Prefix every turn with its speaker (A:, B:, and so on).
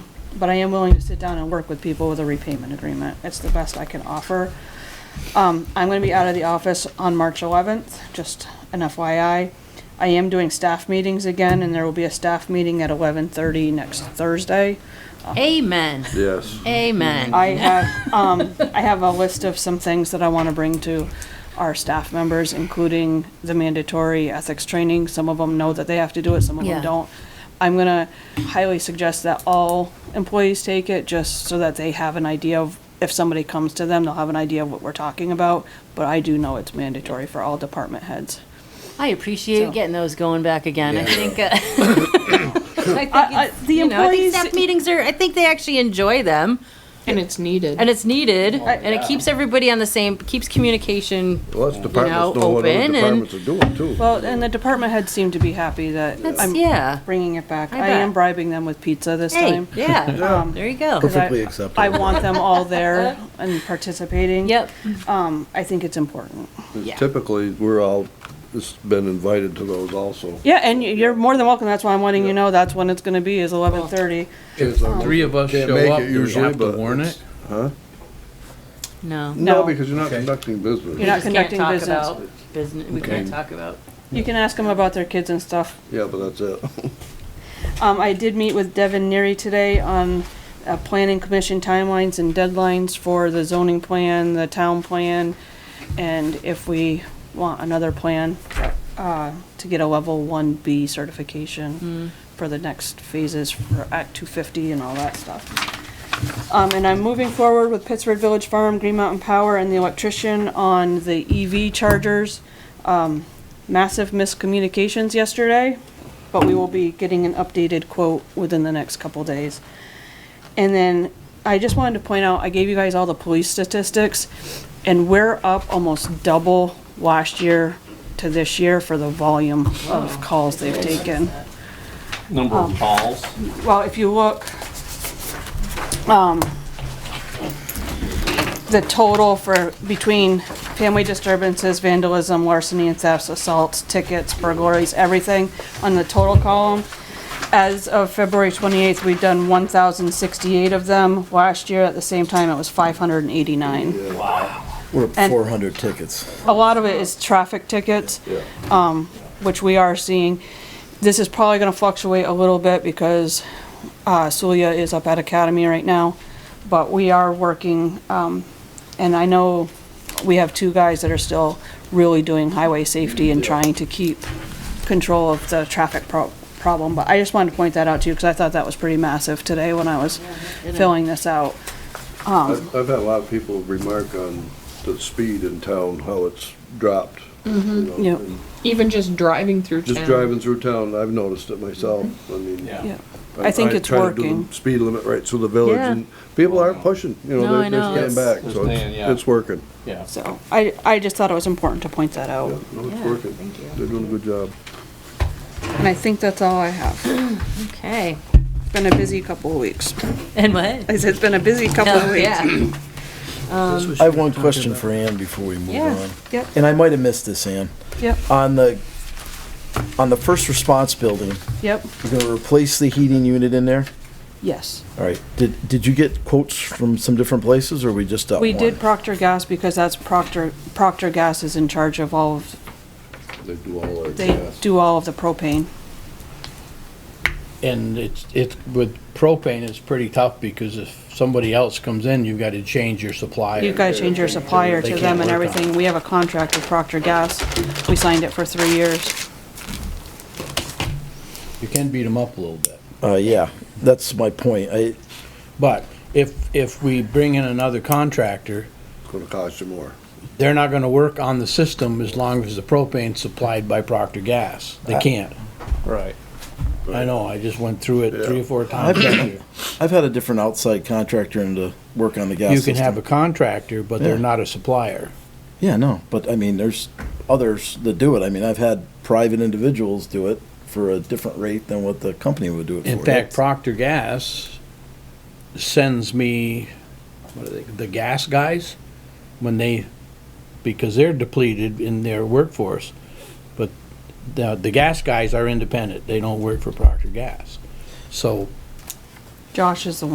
A: but I am willing to sit down and work with people with a repayment agreement. It's the best I can offer. Um, I'm gonna be out of the office on March eleventh, just an FYI. I am doing staff meetings again, and there will be a staff meeting at eleven thirty next Thursday.
B: Amen.
C: Yes.
B: Amen.
A: I have, um, I have a list of some things that I want to bring to our staff members, including the mandatory ethics training. Some of them know that they have to do it, some of
B: Yeah.
A: them don't. I'm gonna highly suggest that all employees take it, just so that they have an idea of, if somebody comes to them, they'll have an idea of what we're talking about. But I do know it's mandatory for all department heads.
B: I appreciate
A: So-
B: getting those going back again. I think. Uh, I think
A: I-
B: it's,
A: the
B: you know, I think
A: employees-
B: staff meetings are. I think they actually enjoy them,
D: And it's needed.
B: and it's needed, and
A: yeah.
B: it keeps everybody on the same. Keeps communication.
C: Well, that's departments
B: You know,
C: know what other
B: open and-
C: departments are doing too.
A: Well, and the department heads seem to be happy that
B: That's
A: I'm
B: yeah.
A: bringing it back.
B: I
A: I am
B: bet.
A: bribing them with pizza this
B: Hey,
A: time.
B: yeah.
A: Um,
B: There you go.
A: 'cause I-
E: Perfectly acceptable.
A: I want them all there and participating.
B: Yep.
A: Um, I think it's important.
B: yeah.
C: Typically, we're all, it's been invited to those also.
A: Yeah, and y- you're more than welcome. That's why I'm letting you know that's when it's gonna be is eleven thirty.
F: Three of us
C: Can't
F: show
C: make
F: up,
C: it
F: do we
C: usually,
F: have to
C: but
F: warn
C: it's-
F: it?
B: No.
C: No,
A: No.
C: because you're not
E: Okay.
C: conducting business.
A: You're not
B: We just can't
A: conducting
B: talk
A: business.
B: about business. We can't talk about.
A: You can ask them about their kids and stuff.
C: Yeah, but that's it.
A: Um, I did meet with Devin Neary today on, uh, planning commission timelines and deadlines for the zoning plan, the town plan, and if we want another plan, uh, to get a level one B certification for the next phases for Act two fifty and all that stuff. Um, and I'm moving forward with Pittsburgh Village Farm, Green Mountain Power, and the electrician on the EV chargers. Um, massive miscommunications yesterday but we will be getting an updated quote within the next couple days. And then I just wanted to point out, I gave you guys all the police statistics, and we're up almost double last year to this year for the volume of calls they've taken. Um,
G: Number of calls.
A: Well, if you look, um, the total for, between family disturbances, vandalism, larceny and thefts, assaults, tickets, burglaries, everything on the total column. As of February twenty-eighth, we've done one thousand sixty-eight of them. Last year, at the same time, it was five hundred and eighty-nine.
E: We're up
A: And-
E: 400 tickets.
A: A lot of it is traffic tickets um,
C: Yeah.
A: which we are seeing. This is probably gonna fluctuate a little bit because, uh, Sulia is up at Academy right now, but we are working, um, and I know we have two guys that are still really doing highway safety and trying to keep control of the traffic pro- problem, but I just wanted to point that out to you, cause I thought that was pretty massive today when I was filling this out.
B: Um.
C: I've I've had a lot of people remark on the speed in town, how it's dropped. Mm-hmm,
A: Yep.
D: Even just driving through
C: Just
D: town.
C: driving through town, I've noticed it myself, I mean.
A: Yeah. I think it's
C: try to do the
A: working.
C: Speed limit right through the village,
B: Yeah.
C: and people aren't pushing,
B: No,
C: you know,
B: I
C: they're,
B: know.
C: they're staying
B: It's-
C: back,
G: it's
C: so
G: staying, yeah.
C: it's, it's working.
G: Yeah.
A: So, I, I just thought it was important to point that
C: Yeah,
A: out,
C: no,
B: Yeah,
C: it's working.
B: thank you.
C: They're doing a good job.
A: and I think that's all I have.
B: Okay.
A: It's been a busy couple of weeks.
B: And what?
A: I said, it's been a busy couple of
B: No,
A: weeks.
B: yeah.
E: I have one question for Ann before we move
B: Yeah.
E: on.
A: Yep,
E: And I might have missed this, Ann.
A: yep,
E: On the, on the first response building,
A: yep,
E: you're gonna replace the heating unit in there?
A: yes.
E: All right, did, did you get quotes from some different places, or we just up
A: We
E: one?
A: did Procter Gas because that's Procter, Procter Gas is in charge of all of,
C: They do all their
A: they
C: tasks.
A: do all of the propane.
F: And it's, it's, with propane, it's pretty tough because if somebody else comes in, you've got to change your supplier.
A: You've got to change your supplier
F: They
A: to
F: can't
A: them and
F: work on it.
A: everything. We have a contract with Procter Gas. We signed it for three years.
F: You can beat them up a little bit.
E: Uh, yeah, that's my point. I,
F: But if, if we bring in another contractor,
C: It's gonna cost you more.
F: they're not going to work on the system as long as the propane's supplied by Procter Gas. They can't.
G: Right.
F: I know, I just went through it three or four times.
E: I've had, I've had a different outside contractor in to work on the gas
F: You can
E: system.
F: have a contractor, but they're
E: Yeah.
F: not a supplier.
E: Yeah, no, but I mean, there's others that do it. I mean, I've had private individuals do it for a different rate than what the company would do it
F: In
E: for.
F: fact, Procter Gas sends me, what are they, the gas guys, when they, because they're depleted in their workforce. But the, the gas guys are independent, they don't work for Procter Gas. So
A: Josh is the one.